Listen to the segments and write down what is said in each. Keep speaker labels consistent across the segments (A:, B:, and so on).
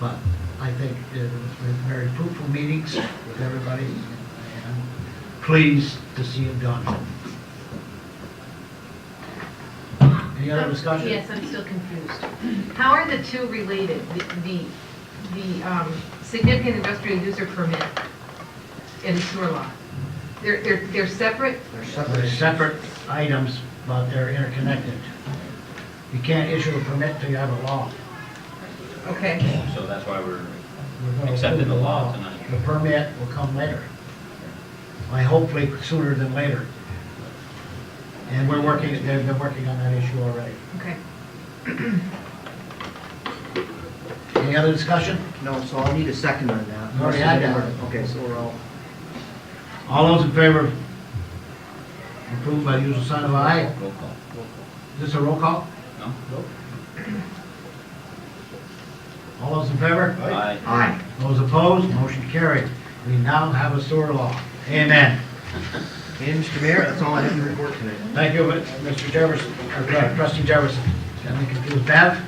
A: But I think it was very fruitful meetings with everybody, and I'm pleased to see it done. Any other
B: Um,
A: discussion?
B: Yes, I'm still confused. How are the two related? The, the- the um, significant industrial user permit and sewer law? They're, they're, they're separate?
A: They're separate- they're separate items, but they're interconnected. You can't issue a permit till you have a law.
B: Okay,
C: So that's why we're,
A: We're gonna
C: Accepted
A: approve
C: the law tonight.
A: The permit will come later. I hopefully sooner than later. And we're working, they've been working on that issue already.
B: okay.
A: Any other discussion?
D: No, so I'll need a second on that.
A: We already had that.
D: Okay, so we're all,
A: All those in favor? Approved by the usual sign of aye.
C: roll call.
A: Is this a roll call?
C: No?
A: All those in favor?
C: Aye.
D: aye.
A: Those opposed? Motion carried. We now have a sewer law. Amen.
D: And Mr. Mayor, that's all I have to report tonight.
A: Thank you, Mr. Jefferson, or uh, trustee Jefferson. Got me confused. Bev?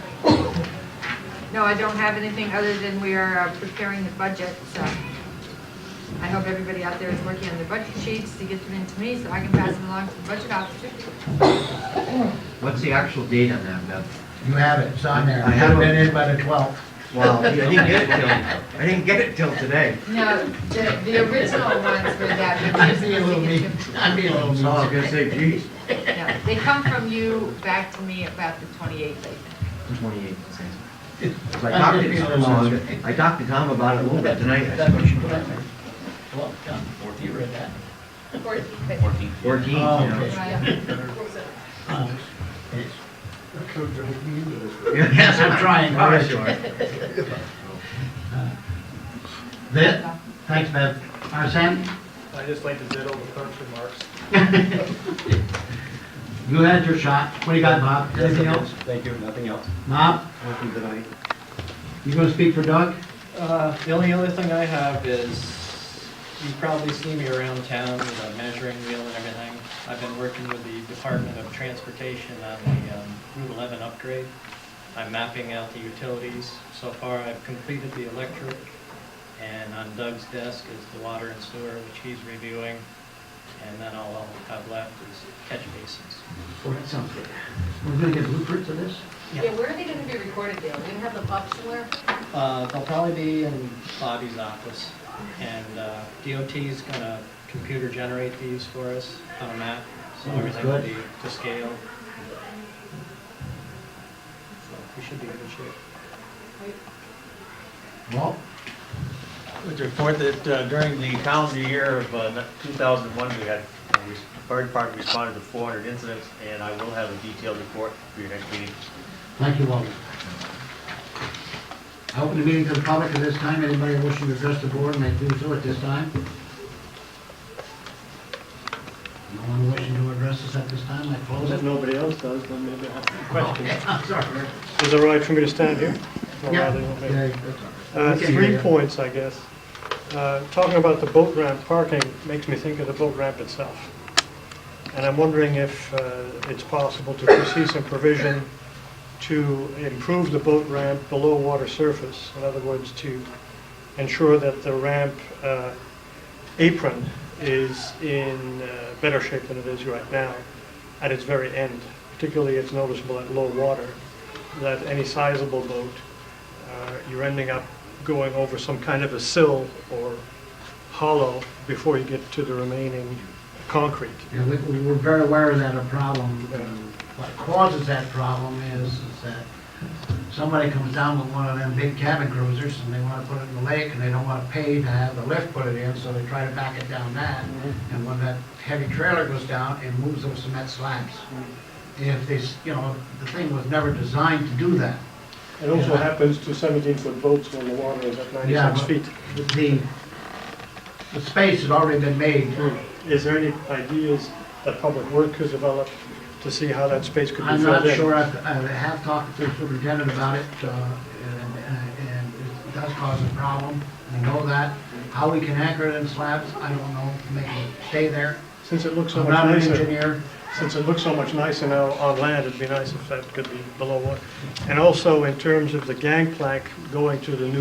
E: No, I don't have anything other than we are uh, preparing the budget, so I hope everybody out there is working on their budget sheets to get them into me so I can pass them along to the budget officer.
D: What's the actual date on that, Beth?
A: You have it, it's on there.
D: I have it.
A: Been in by the 12th.
D: Wow, I didn't get it till, I didn't get it till today.
E: No, the, the original ones were that. but
A: I'd be a little
E: these
A: mean,
E: are-
A: I'd be a little
D: So I was
A: mean.
D: gonna say, geez,
E: Yeah, They come from you back to me about the 28th, I think.
D: twenty-eight. I talked to Tom, well, I talked to Tom about it a little bit tonight. I suppose.
A: Well, done.
C: Fourteen.
A: You read that.
C: Fourteen.
D: Fourteen, you
A: Oh,
D: know.
E: Right.
A: Uh, Yes,
D: Yes,
A: I'm trying, all right.
D: you are.
A: That, thanks, Bev. Arsen,
F: I just like to ditto the clerk's remarks.
A: you had your shot. What do you got, Bob? Anything else?
C: Thank you, nothing else.
A: Bob,
D: Welcome tonight.
A: you gonna speak for Doug?
F: Uh, The only other thing I have is, you probably see me around town with a measuring wheel and everything. I've been working with the Department of Transportation on the um, Route 11 upgrade. I'm mapping out the utilities. So far, I've completed the electric, and on Doug's desk is the water and sewer, which he's reviewing. And then all I'll have left is catch basins.
A: Oh, that sounds good. We're gonna get blueprints of this?
F: Yeah.
B: Yeah, where are they going to be recorded, Dale? Are you going to have them up somewhere?
F: Uh, They'll probably be in Bobby's office, and uh, DOT's gonna computer generate these for us on a map, so
A: Oh, that's
F: everything will
A: good.
F: be to scale. So We should be in good shape.
A: Well,
G: Would report that uh, during the calendar year of uh, 2001, we had, uh, we- the fire department responded to 400 incidents, and I will have a detailed report for your next meeting.
A: thank you, Walter. I open the meeting to the public at this time. Anybody wishing to address the board may do so at this time. No one wishing to address us at this time, I close it.
F: nobody else does, then maybe I have some
A: Okay, I'm sorry.
H: Is it all right for me to stand here? Or
A: Yeah.
H: rather, okay.
A: Yeah, that's all right.
H: Uh,
A: We can hear
H: Three
A: you.
H: points, I guess. Uh, Talking about the boat ramp parking makes me think of the boat ramp itself. And I'm wondering if uh, it's possible to foresee some provision to improve the boat ramp below water surface. In other words, to ensure that the ramp uh, apron is in uh, better shape than it is right now at its very end. Particularly, it's noticeable at low water that any sizable boat uh, you're ending up going over some kind of a sill or hollow before you get to the remaining concrete.
A: Yeah, we, we we're very aware of that a problem, and what causes that problem is, is that somebody comes down with one of them big cabin cruisers, and they wanna put it in the lake, and they don't wanna pay to have the lift put it in, so they try to back it down that, and when that heavy trailer goes down, it moves those cement slabs. If they, s- you know, the thing was never designed to do that.
H: It
A: also
H: happens to 17-foot boats when the water is at
A: Yeah, but-
H: 96 feet.
A: The, the space had already been made,
H: Hmm. Is there any ideas that Public Works has developed to see how that space could be filled
A: I'm
H: in?
A: not sure, I've- I have talked to the superintendent about it, uh, and and- and it does cause a problem, we know that. How we can anchor it in slabs, I don't know, make it stay there.
H: Since it looks so
A: I'm
H: much
A: not an
H: nicer,
A: engineer,
H: since it looks so much nicer now on land, it'd be nice if that could be below water. And also, in terms of the gangplank going to the new